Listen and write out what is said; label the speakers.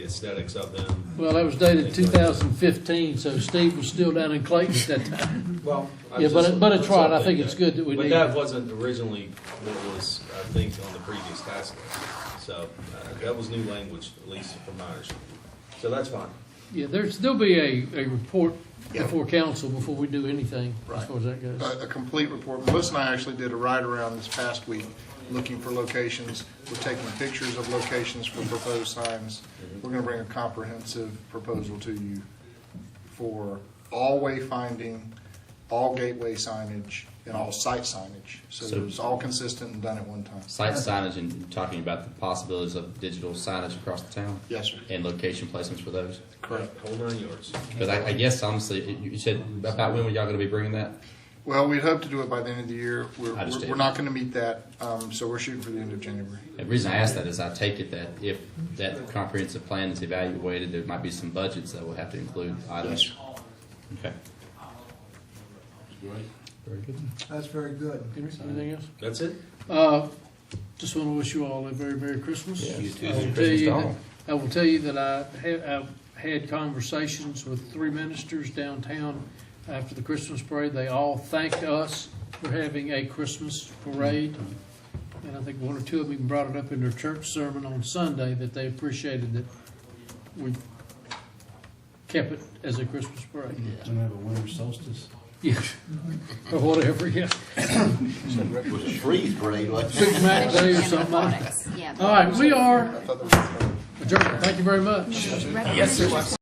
Speaker 1: aesthetics of them.
Speaker 2: Well, that was dated 2015, so Steve was still down in Clayton at that time.
Speaker 1: Well. I
Speaker 2: Yeah,
Speaker 1: was
Speaker 2: but
Speaker 1: just-
Speaker 2: it- but it's
Speaker 1: that's all
Speaker 2: right. I think
Speaker 1: that-
Speaker 2: it's good that we
Speaker 1: But
Speaker 2: need
Speaker 1: that
Speaker 2: it.
Speaker 1: wasn't originally what was, I think, on the previous task list. So uh, that was new language, at least from my understanding. So that's fine.
Speaker 2: Yeah, there's, there'll be a, a report
Speaker 3: Yeah.
Speaker 2: before council before we do anything, as far as that goes.
Speaker 3: a, a complete report. Melissa and I actually did a ride-around this past week, looking for locations. We're taking pictures of locations for proposed signs. We're gonna bring a comprehensive proposal to you for all wayfinding, all gateway signage, and all site signage. So
Speaker 4: So-
Speaker 3: it's all consistent and done at one time.
Speaker 4: Site signage and talking about the possibilities of digital signage across the town
Speaker 3: Yes, sir.
Speaker 4: and location placements for those.
Speaker 3: Correct.
Speaker 1: Whole nine yards.
Speaker 4: Because I, I guess honestly, you- you said about when were y'all going to be bringing that?
Speaker 3: Well, we'd hope to do it by the end of the year. We're,
Speaker 4: I understand.
Speaker 3: we're not gonna meet that, um, so we're shooting for the end of January.
Speaker 4: The reason I ask that is I take it that if that comprehensive plan is evaluated, there might be some budgets that will have to include items. Okay. Very good.
Speaker 5: That's very good.
Speaker 2: Anything else?
Speaker 1: That's it?
Speaker 2: Uh, Just want to wish you all a very Merry Christmas.
Speaker 4: Yes. You too.
Speaker 2: I
Speaker 4: Merry
Speaker 2: will tell
Speaker 4: Christmas
Speaker 2: you
Speaker 4: to
Speaker 2: that-
Speaker 4: all.
Speaker 2: I will tell you that I had, I've had conversations with three ministers downtown after the Christmas parade. They all thanked us for having a Christmas parade. And I think one or two of them even brought it up in their church sermon on Sunday, that they appreciated that we kept it as a Christmas parade.
Speaker 6: Don't have a winter solstice.
Speaker 2: Yeah, or whatever, yeah.
Speaker 7: With a freeze parade, like.
Speaker 2: Superman Day or something like that.
Speaker 8: Yeah.
Speaker 2: All right, we are adjourned. Thank you very much.